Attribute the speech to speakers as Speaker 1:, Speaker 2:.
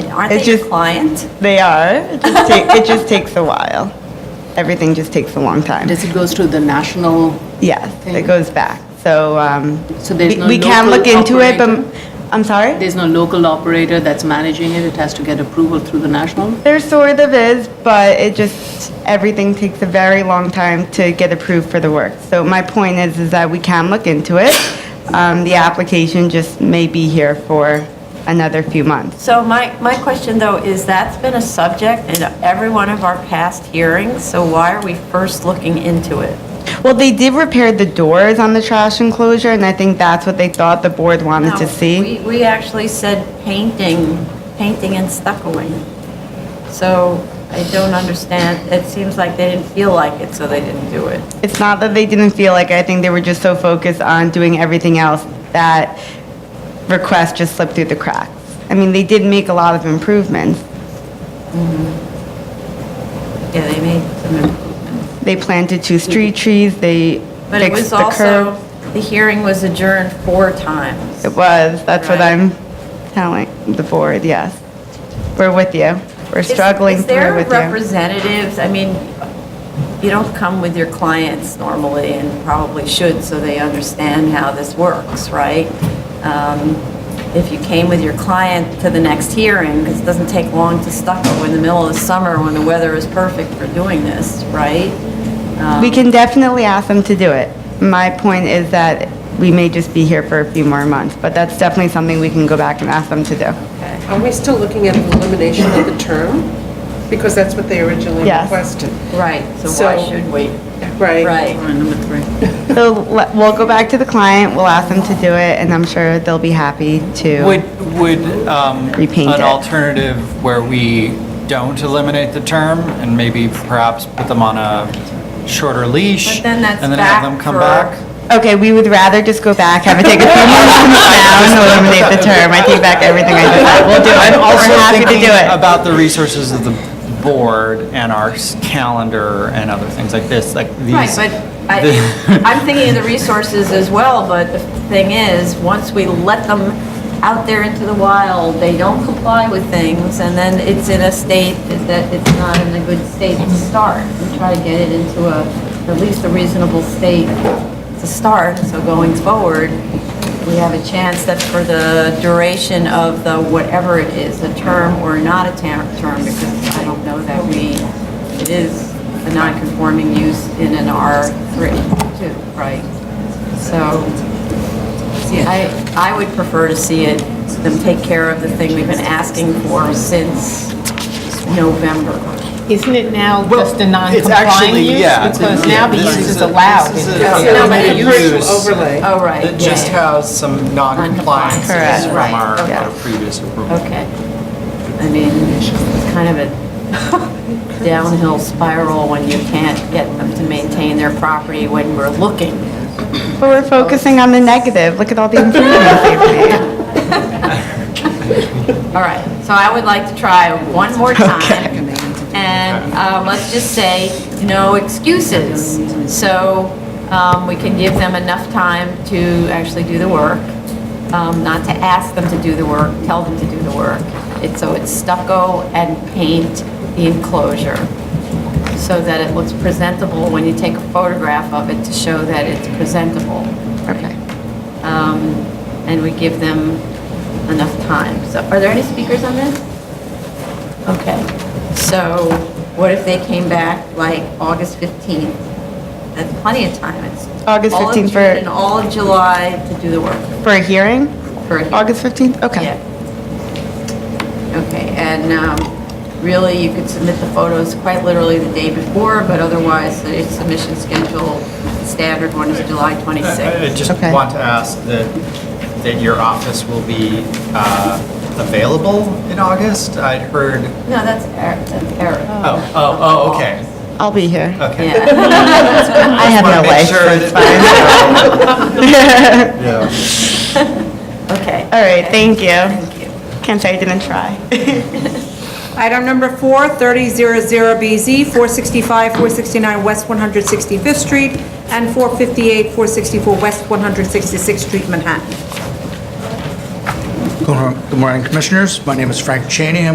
Speaker 1: Aren't
Speaker 2: It's
Speaker 1: they your
Speaker 2: just-
Speaker 1: client?
Speaker 2: They are. It just, ta- it just takes a while. Everything just takes a long time.
Speaker 3: Does it goes to the national,
Speaker 2: Yes, it
Speaker 3: Thing.
Speaker 2: goes back. So, um,
Speaker 3: So there's
Speaker 2: we-
Speaker 3: no
Speaker 2: we can look
Speaker 3: local
Speaker 2: into it, but,
Speaker 3: operator?
Speaker 2: I'm sorry?
Speaker 3: there's no local operator that's managing it, it has to get approval through the national?
Speaker 2: There sort of is, but it just, everything takes a very long time to get approved for the work. So my point is, is that we can look into it. Um, The application just may be here for another few months.
Speaker 1: So my, my question though is that's been a subject in every one of our past hearings, so why are we first looking into it?
Speaker 2: Well, they did repair the doors on the trash enclosure, and I think that's what they thought the board wanted to
Speaker 1: No,
Speaker 2: see.
Speaker 1: We, we actually said painting, painting and stuccoing. So I don't understand, it seems like they didn't feel like it, so they didn't do it.
Speaker 2: It's not that they didn't feel like, it, I think they were just so focused on doing everything else that request just slipped through the cracks. I mean, they did make a lot of improvements.
Speaker 1: Yeah, they made some improvements.
Speaker 2: They planted two street trees, they
Speaker 1: But it was
Speaker 2: fixed the
Speaker 1: also,
Speaker 2: curb.
Speaker 1: the hearing was adjourned four times.
Speaker 2: It was, that's what
Speaker 1: Right.
Speaker 2: I'm telling the board, yes. We're with you. We're
Speaker 1: Is-
Speaker 2: struggling
Speaker 1: Is
Speaker 2: through
Speaker 1: there
Speaker 2: with you.
Speaker 1: representatives, I mean, you don't come with your clients normally and probably should so they understand how this works, right? Um, If you came with your client to the next hearing, because it doesn't take long to stucco in the middle of the summer when the weather is perfect for doing this, right?
Speaker 2: We can definitely ask them to do it. My point is that we may just be here for a few more months, but that's definitely something we can go back and ask them to do.
Speaker 4: Are we still looking at the elimination of the term? Because that's what they originally
Speaker 2: Yes.
Speaker 4: requested.
Speaker 1: Right, so why
Speaker 4: So-
Speaker 1: should we?
Speaker 4: Right.
Speaker 1: Right.
Speaker 3: Number three.
Speaker 2: So le- we'll go back to the client, we'll ask them to do it, and I'm sure they'll be happy to.
Speaker 5: Would, would um,
Speaker 2: Repaint
Speaker 5: an
Speaker 2: it.
Speaker 5: alternative where we don't eliminate the term and maybe perhaps put them on a shorter leash?
Speaker 1: But then that's
Speaker 5: And then
Speaker 1: back
Speaker 5: have them come
Speaker 1: for-
Speaker 5: back?
Speaker 2: Okay, we would rather just go back, have it take a few months to move down, and eliminate the term. I take back everything I just said. We'll do it.
Speaker 5: I'm also
Speaker 2: We're happy to
Speaker 5: thinking
Speaker 2: do it.
Speaker 5: about the resources of the board and our s- calendar and other things like this, like these.
Speaker 1: Right, but I,
Speaker 5: the-
Speaker 1: I'm thinking of the resources as well, but the thing is, once we let them out there into the wild, they don't comply with things, and then it's in a state that it's not in a good state to start. We try to get it into a, at least a reasonable state to start, so going forward, we have a chance that for the duration of the whatever it is, a term or not a ter- term, because I don't know that we, it is a non-conforming use in an R3, too, right? So, see, I, I would prefer to see it, them take care of the thing we've been asking for since November.
Speaker 6: Isn't it now just a
Speaker 5: It's
Speaker 6: non-compliant
Speaker 5: actually,
Speaker 6: use?
Speaker 5: yeah.
Speaker 6: Because now the
Speaker 5: this
Speaker 6: use is allowed.
Speaker 5: This
Speaker 6: in
Speaker 5: is
Speaker 6: this
Speaker 5: a-
Speaker 6: area.
Speaker 1: No, but
Speaker 5: a
Speaker 1: it-
Speaker 4: Commercial
Speaker 5: use
Speaker 4: overlay.
Speaker 7: Uh,
Speaker 1: Oh, right,
Speaker 5: That just
Speaker 1: yeah,
Speaker 5: has some non-compliance
Speaker 2: Correct.
Speaker 5: from
Speaker 1: Right,
Speaker 5: our
Speaker 1: okay.
Speaker 5: our previous approval.
Speaker 1: Okay. I mean, it's kind of a downhill spiral when you can't get them to maintain their property when we're looking.
Speaker 2: But we're focusing on the negative. Look at all the improvements they've made.
Speaker 1: All right, so I would like to try one more time. And um, let's just say, no excuses. So um, we can give them enough time to actually do the work, um, not to ask them to do the work, tell them to do the work. It's, so it's stucco and paint the enclosure so that it looks presentable when you take a photograph of it to show that it's presentable. Okay. Um, And we give them enough time. So are there any speakers on this? Okay, so what if they came back like August 15th? That's plenty of time. It's
Speaker 2: August
Speaker 1: all of
Speaker 2: 15th for-
Speaker 1: June And all of July to do the work.
Speaker 2: For a hearing?
Speaker 1: For a hearing.
Speaker 2: August 15th? Okay.
Speaker 1: Yeah. Okay, and um, really, you could submit the photos quite literally the day before, but otherwise, the submission schedule, standard one is July
Speaker 5: I I
Speaker 1: 26th.
Speaker 5: just
Speaker 2: Okay.
Speaker 5: want to ask that, that your office will be uh, available in August? I'd heard,
Speaker 1: No, that's Eric, that's Eric.
Speaker 5: oh, oh, oh, okay,
Speaker 2: I'll be here.
Speaker 5: okay.
Speaker 1: Yeah.
Speaker 2: I have no
Speaker 5: Uh, Wanna make
Speaker 2: life, so
Speaker 5: sure
Speaker 2: it's fine.
Speaker 5: that-
Speaker 1: Okay.
Speaker 2: All right, thank you.
Speaker 1: Thank you.
Speaker 2: Can't say I didn't try.
Speaker 7: Item number four, 3000BZ, 465, 469 West 165th Street, and 458, 464 West 166th Street, Manhattan.
Speaker 8: Good morning, Commissioners. My name is Frank Cheney. I'm